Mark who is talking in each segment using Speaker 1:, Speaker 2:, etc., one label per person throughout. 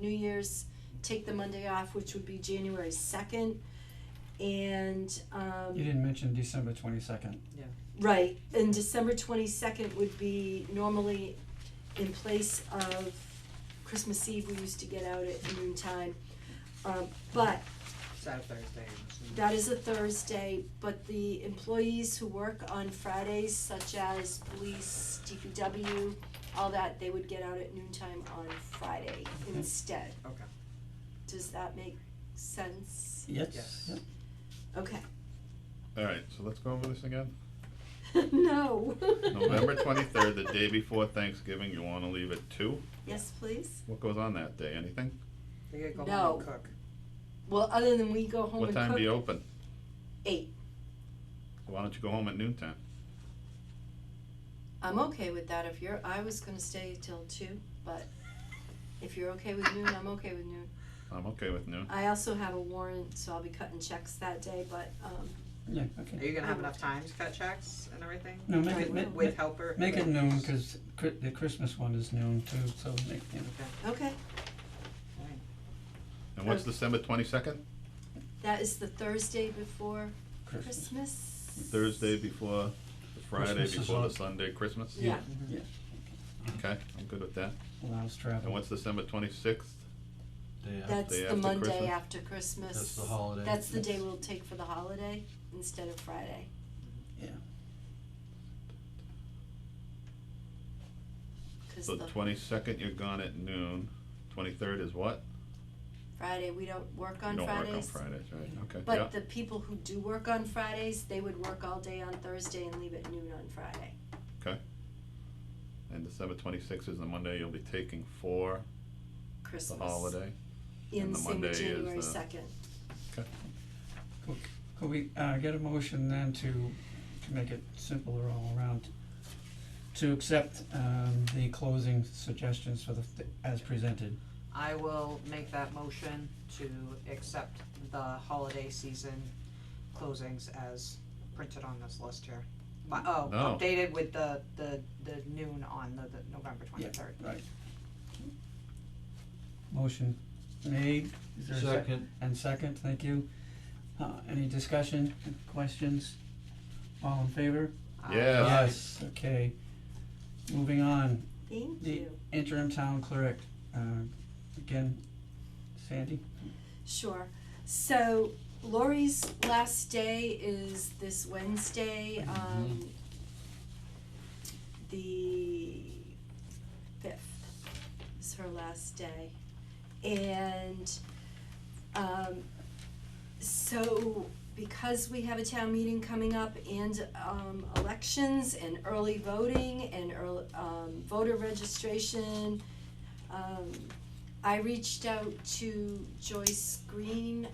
Speaker 1: New Year's, take the Monday off, which would be January second. And, um.
Speaker 2: You didn't mention December twenty-second.
Speaker 1: Right, and December twenty-second would be normally in place of Christmas Eve, we used to get out at noon time. Um, but
Speaker 3: So Thursday, I'm assuming.
Speaker 1: that is a Thursday, but the employees who work on Fridays, such as police, DPW, all that, they would get out at noon time on Friday
Speaker 2: Okay.
Speaker 1: instead.
Speaker 3: Okay.
Speaker 1: Does that make sense?
Speaker 2: Yes,
Speaker 3: Yes.
Speaker 2: yep.
Speaker 1: Okay.
Speaker 4: Alright, so let's go over this again.
Speaker 1: No.
Speaker 4: November twenty-third, the day before Thanksgiving, you wanna leave at two?
Speaker 1: Yes, please.
Speaker 4: What goes on that day, anything?
Speaker 3: They gotta go home
Speaker 1: No.
Speaker 3: and cook.
Speaker 1: Well, other than we go home
Speaker 4: What
Speaker 1: and
Speaker 4: time do you
Speaker 1: cook,
Speaker 4: open?
Speaker 1: eight.
Speaker 4: Why don't you go home at noon time?
Speaker 1: I'm okay with that if you're, I was gonna stay till two, but if you're okay with noon, I'm okay with noon.
Speaker 4: I'm okay with noon.
Speaker 1: I also have a warrant, so I'll be cutting checks that day, but, um,
Speaker 2: yeah,
Speaker 3: Are
Speaker 2: okay.
Speaker 3: you gonna have enough time to cut checks and everything?
Speaker 2: No, make
Speaker 1: Right,
Speaker 2: it,
Speaker 1: we'll-
Speaker 2: ma-
Speaker 3: With
Speaker 2: ma-
Speaker 3: helper?
Speaker 2: make it
Speaker 3: with-
Speaker 2: noon, cause Chri- the Christmas one is noon too, so make, you know,
Speaker 1: okay,
Speaker 4: And
Speaker 1: uh,
Speaker 4: what's December twenty-second?
Speaker 1: that is the Thursday before
Speaker 2: Christmas,
Speaker 1: Christmas.
Speaker 4: Thursday before, the Friday
Speaker 2: Christmas is
Speaker 4: before the
Speaker 2: on-
Speaker 4: Sunday, Christmas?
Speaker 1: Yeah,
Speaker 3: Mm-hmm.
Speaker 4: Okay, I'm good with that.
Speaker 2: allows
Speaker 4: And
Speaker 2: travel.
Speaker 4: what's December twenty-sixth?
Speaker 5: Day uh? after.
Speaker 1: that's
Speaker 4: Day
Speaker 1: the
Speaker 4: after
Speaker 1: Monday
Speaker 4: Christmas?
Speaker 1: after Christmas.
Speaker 5: That's the holiday.
Speaker 1: That's the day
Speaker 2: Yes.
Speaker 1: we'll take for the holiday instead of Friday.
Speaker 2: Yeah.
Speaker 1: 'Cause
Speaker 4: So
Speaker 1: the
Speaker 4: twenty-second, you're gone at noon. Twenty-third is what?
Speaker 1: Friday, we don't work on
Speaker 4: You
Speaker 1: Fridays. Mm-hmm.
Speaker 4: don't work on Fridays, right? Okay, yeah.
Speaker 1: But the people who do work on Fridays, they would work all day on Thursday and leave at noon on Friday.
Speaker 4: And December twenty-sixth is the Monday you'll be taking for the
Speaker 1: Christmas.
Speaker 4: holiday.
Speaker 1: In
Speaker 4: and the
Speaker 1: same
Speaker 4: Monday is
Speaker 1: January
Speaker 4: the-
Speaker 1: second.
Speaker 2: Could we, uh, get a motion then to, to make it simpler all around? To accept, um, the closing suggestions for the, as presented.
Speaker 3: I will make that motion to accept the holiday season closings as printed on this list here. But, oh,
Speaker 4: No.
Speaker 3: updated with the, the, the noon on the, the November twenty-third.
Speaker 2: Right. Motion made, is there a sec-
Speaker 5: Second,
Speaker 2: And second, thank you. Uh, any discussion, questions? All in favor?
Speaker 4: Yeah.
Speaker 2: Yes. Okay. Moving on,
Speaker 1: Thank
Speaker 2: The-
Speaker 1: you.
Speaker 2: interim town clerk, uh, again, Sandy?
Speaker 1: Sure. So Lori's last day is this Wednesday, um, the fifth is her last day. And, um, so because we have a town meeting coming up and, um, elections and early voting and earl- um, voter registration, um, I reached out to Joyce Green,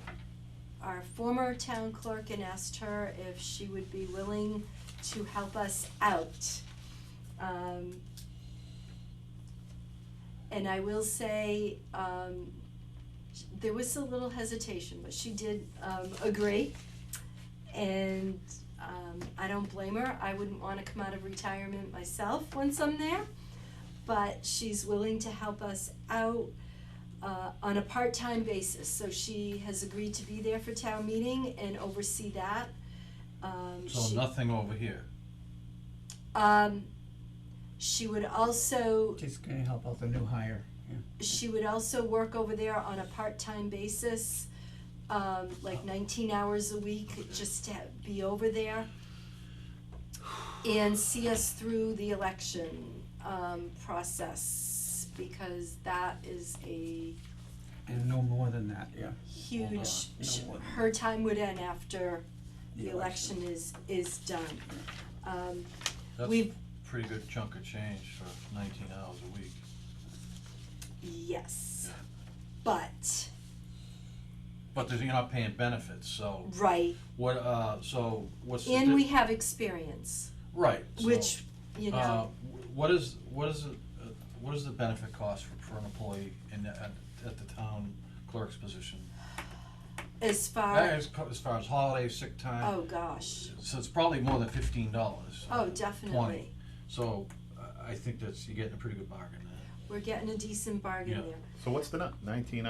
Speaker 1: our former town clerk, and asked her if she would be willing to help us out. Um, and I will say, um, sh- there was a little hesitation, but she did, um, agree. And, um, I don't blame her, I wouldn't wanna come out of retirement myself once I'm there. But she's willing to help us out, uh, on a part-time basis, so she has agreed to be there for town meeting and oversee that. Um,
Speaker 5: so
Speaker 1: she-
Speaker 5: nothing over here.
Speaker 1: um, she would also,
Speaker 2: She's gonna help out the new hire.
Speaker 1: she would also work over there on a part-time basis, um, like nineteen hours a week, just to ha- be over there. And see us through the election, um, process, because that is a
Speaker 2: And no more than that, yeah.
Speaker 5: Hold on,
Speaker 1: huge, sh-
Speaker 2: no one.
Speaker 1: her time would end after the election is, is done. Um,
Speaker 5: That's
Speaker 1: we've
Speaker 5: a pretty good chunk of change for nineteen hours a week.
Speaker 1: Yes. But,
Speaker 5: But there's, you're not paying benefits, so
Speaker 1: right,
Speaker 5: what, uh, so what's the?
Speaker 1: and we
Speaker 5: di-
Speaker 1: have experience,
Speaker 5: Right, so,
Speaker 1: which, you
Speaker 5: uh,
Speaker 1: know,
Speaker 5: wh- what is, what is, it, uh, what is the benefit cost for, for an employee in, the- at, at the town clerk's position?
Speaker 1: as far,
Speaker 5: As, co- as far as holiday, sick time,
Speaker 1: Uh, oh gosh,
Speaker 5: so it's probably more than fifteen dollars.
Speaker 1: oh, definitely.
Speaker 5: So, I, I think that's, you're getting a pretty good bargain there.
Speaker 6: we're getting a decent bargain
Speaker 7: Yeah.
Speaker 6: there.
Speaker 1: So what's the nu- nineteen